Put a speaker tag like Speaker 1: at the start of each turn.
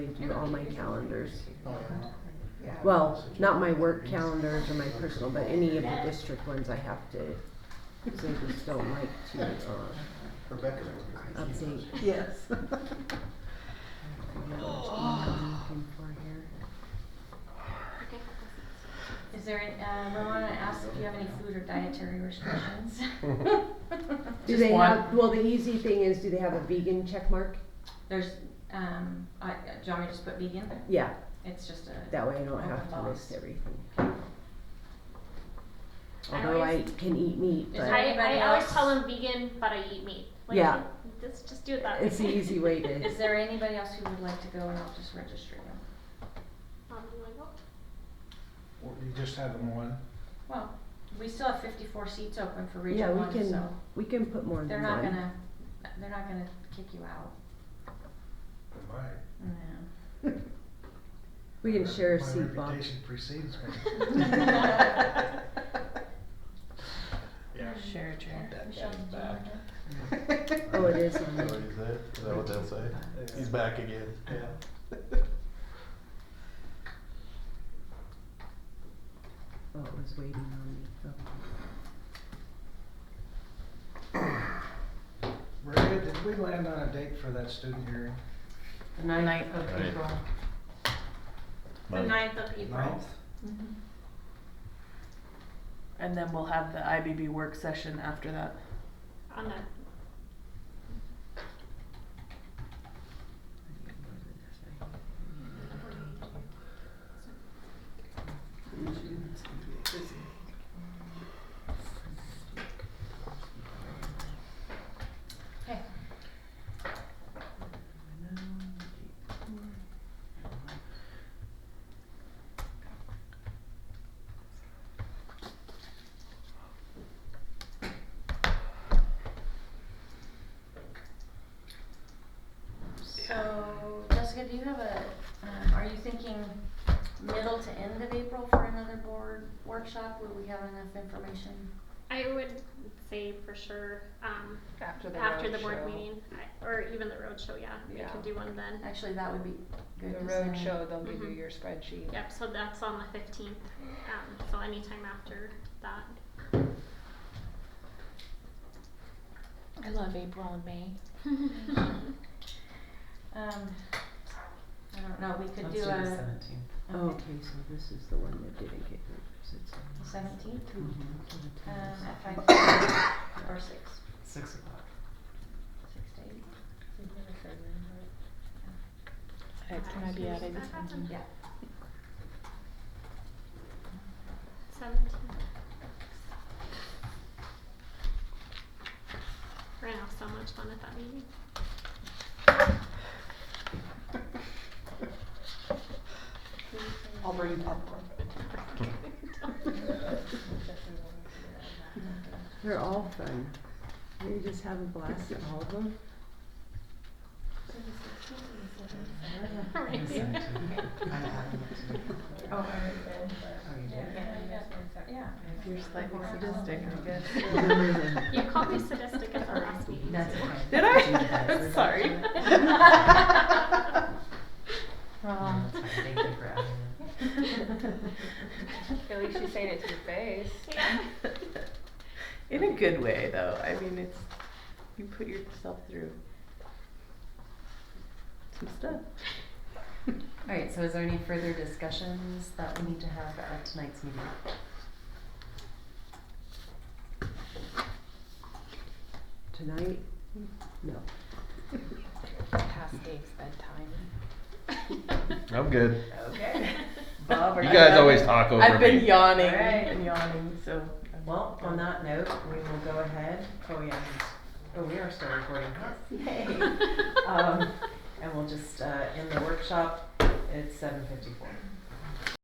Speaker 1: do all my calendars.
Speaker 2: Oh, yeah.
Speaker 1: Well, not my work calendars or my personal, but any of the district ones I have to, because I just don't like to, uh,
Speaker 2: Rebecca's working.
Speaker 1: update.
Speaker 3: Yes.
Speaker 4: Is there, any- um, I wanna ask if you have any food or dietary restrictions?
Speaker 1: Do
Speaker 4: Just
Speaker 1: they
Speaker 4: one.
Speaker 1: have, well, the easy thing is, do they have a vegan check mark?
Speaker 4: There's, um, I, do you want me to just put vegan?
Speaker 1: Yeah,
Speaker 4: It's just a,
Speaker 1: that way I don't have to list everything.
Speaker 5: I
Speaker 1: Although I
Speaker 5: always-
Speaker 1: can eat meat,
Speaker 4: Is
Speaker 1: but
Speaker 4: that-
Speaker 5: I,
Speaker 4: Anybody
Speaker 5: I always
Speaker 4: else?
Speaker 5: call them vegan, but I eat meat. Like,
Speaker 1: Yeah.
Speaker 5: Let's just do it that way.
Speaker 1: it's the easy way to.
Speaker 4: is there anybody else who would like to go and I'll just register them?
Speaker 5: Um, like, oh,
Speaker 2: Or You just have them one?
Speaker 4: Well, we still have fifty-four seats open for
Speaker 1: Yeah,
Speaker 4: region
Speaker 1: we
Speaker 4: one,
Speaker 1: can,
Speaker 4: so
Speaker 1: we can put more
Speaker 4: they're
Speaker 1: than
Speaker 4: not
Speaker 1: one.
Speaker 4: gonna, they're not gonna kick you out.
Speaker 2: My,
Speaker 4: No.
Speaker 1: We can share a seat,
Speaker 2: My
Speaker 1: Bob.
Speaker 2: reputation precedes me. Yeah.
Speaker 6: Share a chair.
Speaker 4: Michelle, did you wanna go?
Speaker 1: Oh, it is on
Speaker 7: Is that
Speaker 1: there.
Speaker 7: what you say? Is that what they'll say?
Speaker 2: Yeah.
Speaker 7: He's back again.
Speaker 2: Yeah.
Speaker 1: Oh, it was waiting on me. Oh.
Speaker 2: Maria, did we land on a date for that student hearing?
Speaker 6: The ninth of
Speaker 7: Right.
Speaker 6: April.
Speaker 5: The
Speaker 7: Mine.
Speaker 5: ninth of April.
Speaker 2: Ninth?
Speaker 6: And then we'll have the IBB work session after that.
Speaker 5: On the,
Speaker 4: Okay. So, Jessica, do you have a, um, are you thinking middle to end of April for another board workshop? Will we have enough information?
Speaker 5: I would say for sure, um,
Speaker 6: After
Speaker 5: after the board meeting, I- or even the roadshow, yeah, we
Speaker 6: Yeah.
Speaker 5: could do one then.
Speaker 4: Actually, that would be good. 'cause then-
Speaker 6: they'll
Speaker 5: give you Mhm.
Speaker 6: your spreadsheet.
Speaker 5: Yep, so that's on the fifteenth, um, so anytime after that.
Speaker 4: I love April and May. Um, I don't know, we could do a
Speaker 1: Oh, okay, so this is the one that didn't get moved, 'cause it's on the
Speaker 4: seventeenth,
Speaker 1: Mhm.
Speaker 4: um, at five thirty or six,
Speaker 6: Six o'clock.
Speaker 4: six to eight,
Speaker 6: Can I be added?
Speaker 5: That happened.
Speaker 4: yeah.
Speaker 5: Seventeenth. We're gonna have so much fun at that meeting.
Speaker 6: I'll bring popcorn.
Speaker 1: They're all fun. We just have a blast at all of them.
Speaker 4: Oh, Yeah.
Speaker 6: If you're slightly sadistic, I guess.
Speaker 5: You called me sadistic at the last meeting.
Speaker 8: That's
Speaker 5: too.
Speaker 8: okay.
Speaker 6: Did I? I'm sorry.
Speaker 8: No, that's fine. Thank you for adding it.
Speaker 6: At least you said it to your face.
Speaker 5: Yeah.
Speaker 6: In a good way, though. I mean, it's, you put yourself through some stuff.
Speaker 8: All right, so is there any further discussions that we need to have at tonight's meeting?
Speaker 1: Tonight? No.
Speaker 6: Past Dave's bedtime.
Speaker 7: I'm good.
Speaker 8: Okay.
Speaker 6: Bob, are
Speaker 7: You
Speaker 6: you?
Speaker 7: guys
Speaker 6: done?
Speaker 7: always talk over
Speaker 6: I've been
Speaker 7: me.
Speaker 6: yawning
Speaker 8: All right.
Speaker 6: and yawning, so. I'm
Speaker 8: Well,
Speaker 6: done.
Speaker 8: on that note, we will go ahead. Oh, yeah. Oh, we are still recording. Yes. Yay. Um, and we'll just, uh, end the workshop. It's seven fifty-four.